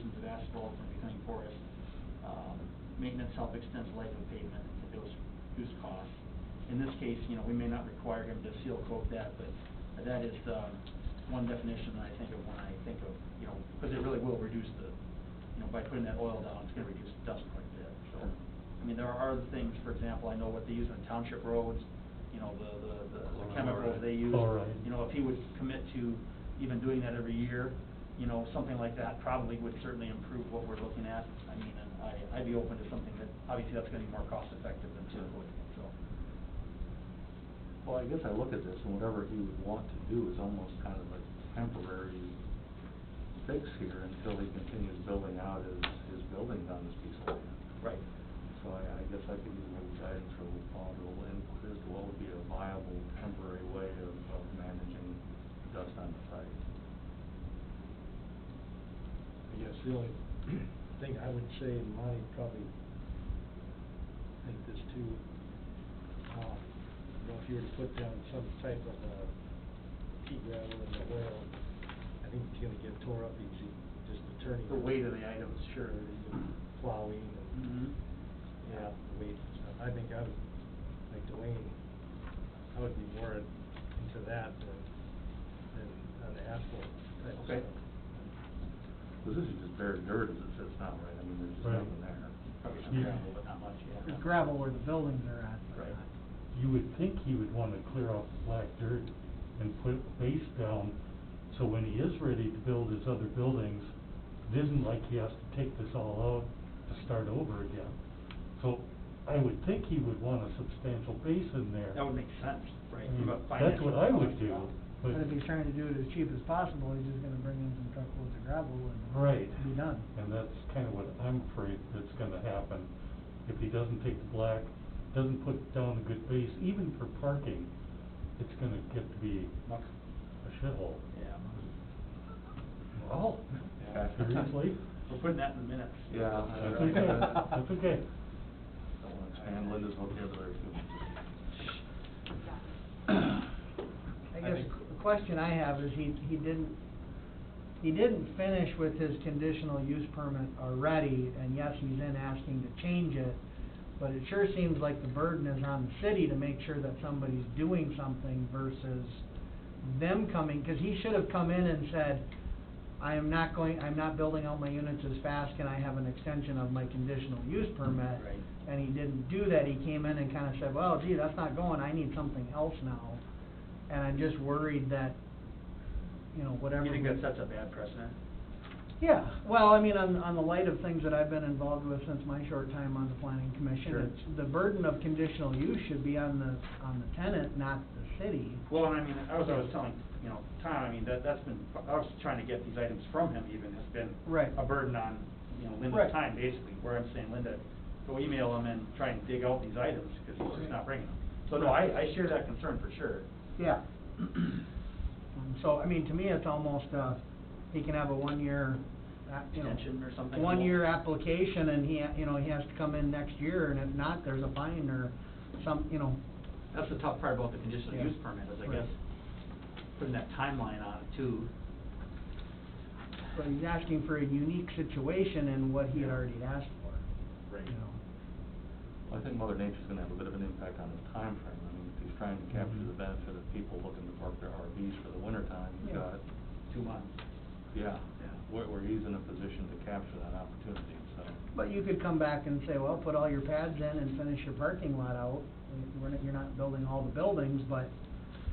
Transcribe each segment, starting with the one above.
asphalt and becoming porous. Um, Maintenance help extends life of pavement, it's a reduce- reduce cost. In this case, you know, we may not require him to seal coat that, but that is um, one definition that I think of when I think of, you know, because it really will reduce the, you know, by putting that oil down, it's gonna reduce dust quite a bit, so. I mean, there are other things, for example, I know what they use on township roads, you know, the, the, the- the chemicals they use. Chloride. You know, if he would commit to even doing that every year, you know, something like that probably would certainly improve what we're looking at. I mean, and I, I'd be open to something that, obviously, that's gonna be more cost effective than seal coating, so. Well, I guess I look at this, and whatever he would want to do is almost kind of a temporary fix here until he continues building out his, his buildings on this piece of land. Right. So I, I guess I could use a little guidance from Paul to inquire as to what would be a viable temporary way of, of managing dust on the site. I guess the only thing I would say, and Monty probably think this too, um, you know, if you were to put down some type of, uh, pea gravel in the oil, I think it's gonna get tore up easy, just the turning. The weight of the items, sure. Sure, and plowing and, Mhm. yeah, the weight and stuff. I think I would, like Dwayne, I would be more into that than, than on the asphalt type Okay. stuff. Because this is just bare dirt as it sits now, right? I mean, there's just Right. nothing there. Probably some Yeah. gravel, but not much, yeah. There's gravel where the buildings are at, but Right. not. You would think he would wanna clear off the black dirt and put base down, so when he is ready to build his other buildings, it isn't like he has to take this all out to start over again. So I would think he would want a substantial base in there. That would make sense, right? I mean, from a Hmm. That's financial what I would point, do, yeah. but. But if he's trying to do it as cheap as possible, he's just gonna bring in some truckloads of gravel and Right. be done. And that's kind of what I'm afraid that's gonna happen. If he doesn't take the black, doesn't put down a good base, even for parking, it's gonna get to be Muck. a shithole. Yeah. Well, Yeah. seriously? We're putting that in minutes. Yeah. I That's don't okay, wanna- that's okay. Don't wanna expand Linda's vocabulary too much. I I guess think- the question I have is he, he didn't, he didn't finish with his conditional use permit already, and yes, he's then asking to change it, but it sure seems like the burden is on the city to make sure that somebody's doing something versus them coming, cause he should have come in and said, I am not going, I'm not building out my units as fast, can I have an extension of my conditional use permit? Right. And he didn't do that, he came in and kinda said, well, gee, that's not going, I need something else now. And I'm just worried that, you know, whatever. You think we- that sets a bad precedent? Yeah, well, I mean, on, on the light of things that I've been involved with since my short time on the planning commission, Sure. it's, the burden of conditional use should be on the, on the tenant, not the city. Well, and I mean, I was, I was telling, you know, Tom, I mean, that, that's been, I was trying to get these items from him even, it's been Right. a burden on, you know, Right. Linda's time, basically, where I'm saying, Linda, go email him and try and dig out these items, because he's just not bringing them. So no, I, I share that concern for sure. Yeah. Um, So, I mean, to me, it's almost, uh, he can have a one-year, uh, you know. Extension or something. One-year application and he, ha- you know, he has to come in next year and if not, there's a fine or some, you know, That's the tough part about the conditional Yeah. use permit, is I Right. guess, putting that timeline on it too. but he's asking for a unique situation in what he had Yeah. already asked for, Right. you know. Well, I think Mother Nature's gonna have a bit of an impact on his time frame. I mean, if he's trying to capture Mhm. the benefit of people looking to park their RVs for the winter time, he's Yeah. got, Two months. yeah, Yeah. where, where he's in a position to capture that opportunity, so. But you could come back and say, well, put all your pads in and finish your parking lot out. We're not, you're not building all the buildings, but,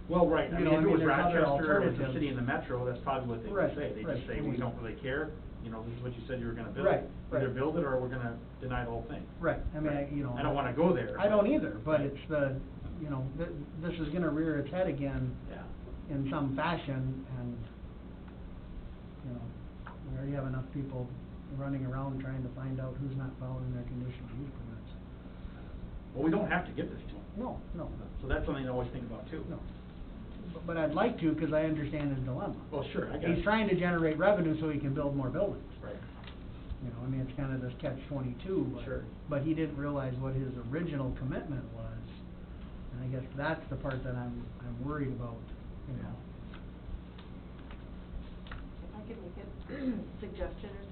Well, right, I mean, You know, if I it mean, was there's other Rochester, it's a alternatives. city in the metro, that's probably what they would Right, say. They right. just say, we don't really care, you know, this is what you said you were gonna build. Right, Either right. build it or we're gonna deny the whole thing. right, I mean, I, you know. I don't wanna go there. I don't either, but Right. it's the, you know, th- this is gonna rear its head again Yeah, in some fashion and, you know, we already have enough people running around trying to find out who's not following their conditional use permits. well, we don't have to give this to them, No, no, so that's something to always think about too. no. But- But I'd like to, cause I understand his dilemma. Well, sure, I got it. He's trying to generate revenue so he can build more buildings. Right, You know, I mean, it's kind of this catch twenty-two, but. Sure. But he didn't realize what his original commitment was, and I guess that's the part that I'm, I'm worried about, you know. If I could make a suggestion or